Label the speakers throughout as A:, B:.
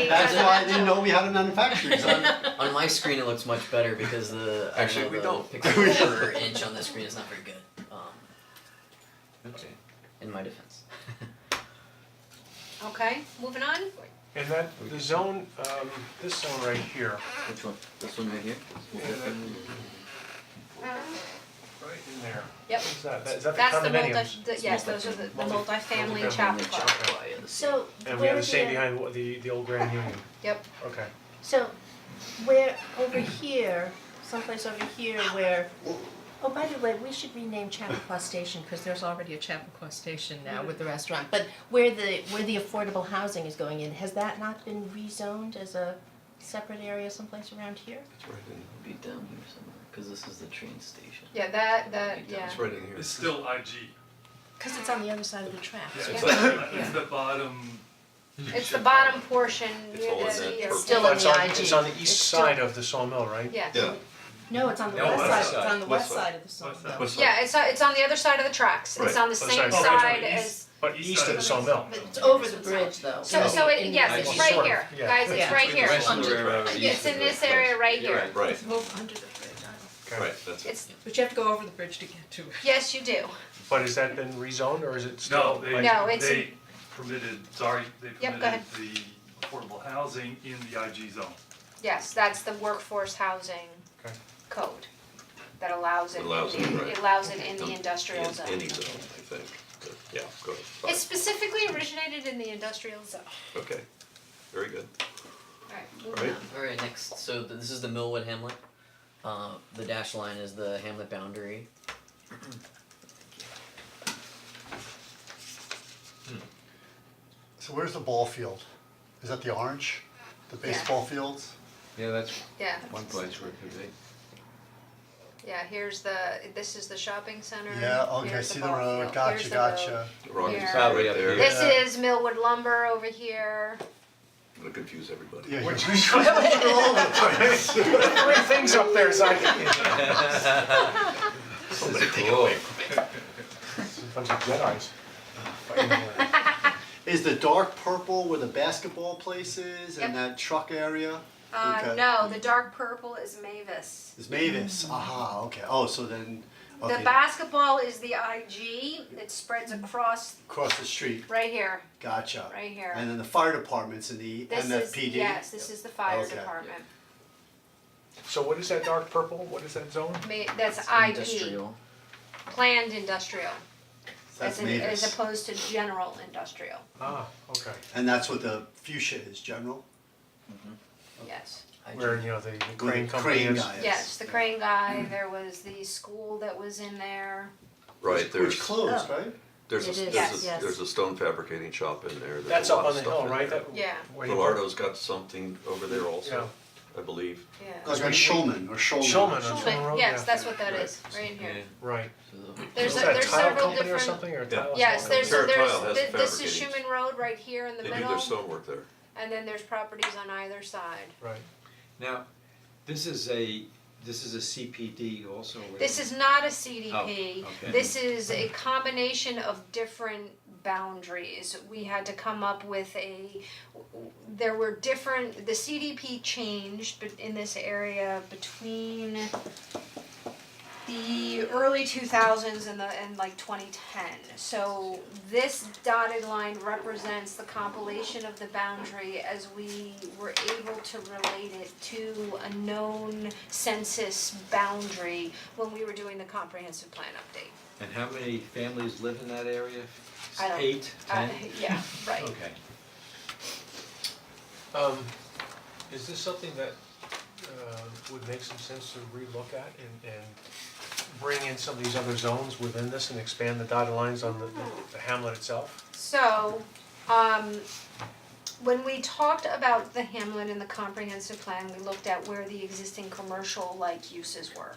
A: Right.
B: That's why I didn't know we had a manufacturing
A: on,
B: zone.
A: on my screen it looks much better because the I
C: Actually,
A: know
C: we
A: the
C: don't.
A: pixel per inch on the screen is not very good. Um,
C: Okay.
A: in my defense.
D: Okay, moving on.
E: And that, the zone, um, this zone right here,
C: Which one? This one right here?
E: Yeah, that- right in there,
D: Yep.
E: what's that, That- is that the
D: That's the multi,
E: condominiums?
D: the- yes, those are the, the
E: Multi-
D: multifamily
E: multifamily
D: chapter
E: chapter.
D: club.
F: So
E: And we have
F: where
E: the same
F: the,
E: behind wa- the, the old Grand Union,
D: Yep,
E: okay.
F: so where over here, someplace over here where, oh, by the way, we should rename Chappaqua Station because there's already a Chappaqua Station now with the restaurant. But where the, where the affordable housing is going in, has that not been rezoned as a separate area someplace around here?
B: It's right in,
A: Be down here somewhere because this is the train station.
D: yeah, that, that, yeah,
B: it's right in here.
G: It's still IG.
F: Because it's on the other side of the track.
G: Yeah,
D: Yeah.
G: it's the, it's the bottom.
D: it's the bottom portion
C: It's
D: near
C: all in
D: the,
C: that
D: yeah.
C: purple.
F: Still in
E: That's
F: the
E: on,
F: IG.
E: it's on the
F: It's
E: east
F: still-
E: side of the sawmill, right?
D: Yeah,
B: Yeah,
F: No, it's on the
G: No,
F: west
G: west
F: side, it's
G: side.
F: on the
B: West
F: west
B: side.
F: side of the sawmill.
G: West side.
B: What's
D: yeah, it's, on- it's on the other side of the tracks, it's
B: Right.
D: on the
E: Other
D: same
E: side. Okay.
D: side
G: East.
D: as,
E: But east of the sawmill.
F: But it's over the bridge though.
D: so, so it, yes,
E: Well,
D: it's right
E: sort of,
D: here,
E: yeah.
D: guys, it's
F: Yeah.
D: right here.
C: Rest of
A: Under
C: the
A: the
C: railroad,
D: Yeah, It's
C: east of
D: in
C: the
D: this
C: place.
D: area right
C: You're
D: here,
C: right.
F: Move under the bridge,
E: Okay.
C: Right, that's it.
D: it's,
F: but you have to go over the bridge to get to it.
D: yes, you do,
E: But has that been rezoned or is it still?
G: No, they,
E: like-
D: No, it's
G: they permitted, sorry, they
D: Yep,
G: permitted
D: go ahead.
G: the affordable housing in the IG zone.
D: yes, that's the workforce housing
E: Okay.
D: code that allows it, in
C: Allows it,
D: the-
C: right.
D: it allows it in
C: Um,
D: the industrial zone.
C: Any zone, I think, But, yeah, go ahead, Bye.
D: It specifically originated in the industrial zone.
C: okay, very good.
D: Alright,
C: Right.
D: moving on.
A: Alright, next, so th- this is the Millwood Hamlet. Uh, the dashed line is the hamlet boundary.
H: So where's the ball field? Is that the orange, the baseball fields?
C: Yeah, that's
D: Yeah,
C: one place where it could be.
D: yeah, here's the, this is the shopping center,
H: Yeah, okay,
D: here's
H: see
D: the
H: the
D: ball
H: road,
D: field,
H: gotcha,
D: here's the road.
H: gotcha.
C: Rockies
D: Yeah.
C: right
B: up
C: there,
B: here.
D: This
H: Yeah.
D: is Millwood lumber over here,
C: I'm gonna confuse everybody.
H: Yeah, you're-
E: Three things up there is like,
C: Somebody take it away.
E: sometimes the Jedi's. fighting there.
H: Is the dark purple where the basketball place is and that truck area?
D: uh,
H: Okay.
D: no, the dark purple is Mavis.
H: Is Mavis, aha, okay, oh, so then,
D: Mm-hmm. The
H: okay,
D: basketball is the IG, it spreads across
H: across the street,
D: right here,
H: gotcha.
D: right here.
H: And then the fire department's in the
D: This is,
H: MFPD?
D: yes, this is the fire
H: Okay.
D: department,
E: So what is that dark purple, what is that zone?
D: Ma- that's IP,
A: Industrial.
D: planned industrial,
H: That's
D: as in, as
H: Mavis,
D: opposed to general industrial,
E: Ah, okay,
H: and that's what the fuchsia is, general,
D: yes.
A: I
E: where,
A: ju-
E: you know, the the
H: where
E: crane
H: the
E: company
H: crane
E: is.
H: guy is.
D: Yes, the crane
E: Mm-hmm.
D: guy, there was the school that was in there,
C: Right,
H: Which
C: there's,
H: closed,
F: Oh.
H: right?
C: there's, a-
F: It is,
C: there's a,
F: yes.
C: there's a stone fabricating shop in there, there's
E: That's
C: a lot
E: up on
C: of
E: the
C: stuff
E: hill,
C: in
E: right?
C: there.
E: That-
D: Yeah.
E: where you-
C: Velardo's got something over there also, I believe.
D: yeah.
H: Goes by Schulman or Schulman.
E: Schulman. That's on the
D: Schulman,
E: road,
D: yes,
E: yeah.
D: that's what that is, right in here.
E: Right.
A: so the-
D: There's
E: Is
D: a-
E: that a
D: there's
E: tile
D: several
E: company or
D: different.
E: something or a
C: Yeah.
E: tile?
D: Yes,
E: something?
D: there's,
C: Sure,
D: there's,
C: tile has
D: thi- this is
C: fabricating.
D: Schuman Road right here in the
C: They do their
D: middle,
C: stonework there.
D: and then there's properties on either side.
E: Right.
I: Now, this is a, this is a CPD also, right?
D: This is not a CDP,
I: Oh, okay.
D: this is a combination of different boundaries. We had to come up with a, there were different, the CDP changed but in this area between the early two thousands and the, and like twenty ten. So this dotted line represents the compilation of the boundary as we were able to relate it to a known census boundary when we were doing the comprehensive plan update.
I: And how many families live in that area?
D: I don't-
I: Eight,
D: Uh,
I: ten?
D: yeah, right.
I: Okay.
E: Um, is this something that uh would make some sense to relook at and and bring in some of these other zones within this and expand the dotted lines on the the hamlet itself?
D: So, um, when we talked about the Hamlin and the comprehensive plan, we looked at where the existing commercial like uses were.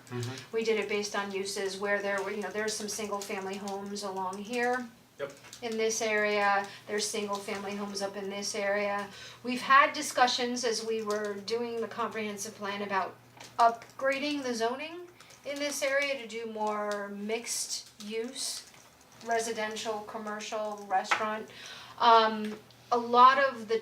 D: We did it based on uses where there were, you know, there's some single family homes along here.
E: Yep.
D: In this area, there's single family homes up in this area. We've had discussions as we were doing the comprehensive plan about upgrading the zoning in this area to do more mixed use residential, commercial, restaurant. Um, a lot of the